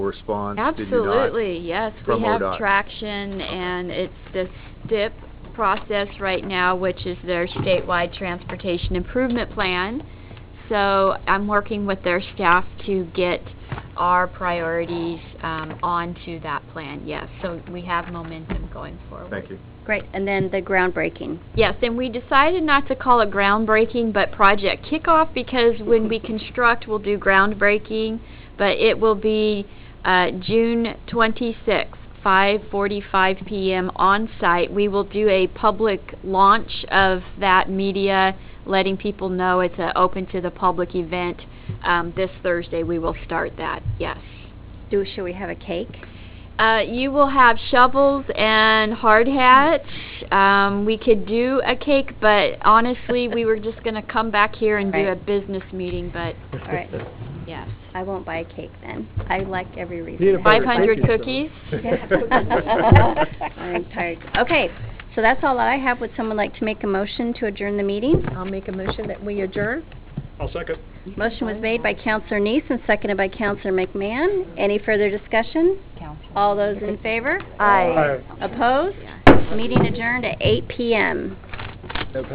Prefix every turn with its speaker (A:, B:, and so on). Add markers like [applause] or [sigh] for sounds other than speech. A: response? Did you not?
B: Absolutely, yes.
A: From
B: We have
A: ODOT.
B: traction, and it's the STIP process right now, which is their statewide transportation improvement plan. So I'm working with their staff to get our priorities um, onto that plan, yes. So we have momentum going forward.
A: Thank you.
C: Great, and then the groundbreaking.
B: Yes, and we decided not to call it groundbreaking, but project kickoff because when we construct, we'll do groundbreaking, but it will be uh, June 26th, 5:45 p.m. on site. We will do a public launch of that media, letting people know it's an open to the public event. Um, this Thursday, we will start that. Yes.
C: Do, shall we have a cake?
B: Uh, you will have shovels and hard hats. Um, we could do a cake, but honestly, we were just going to come back here and do a
C: Right.
B: business meeting, but
C: All right,
B: yes.
C: I won't buy a cake then. I like every reason.
D: Need a
C: to
D: better
B: 500
D: cookie, so.
C: [laughs] I'm tired. Okay, so that's all that I have. Would someone like to make a motion to adjourn the meeting?
E: I'll make a motion that we adjourn.
D: I'll second.
C: Motion was made by Counselor Neese and seconded by Counselor McMahon. Any further discussion? All those in favor?
D: Aye.
C: Opposed? Meeting adjourned at eight PM.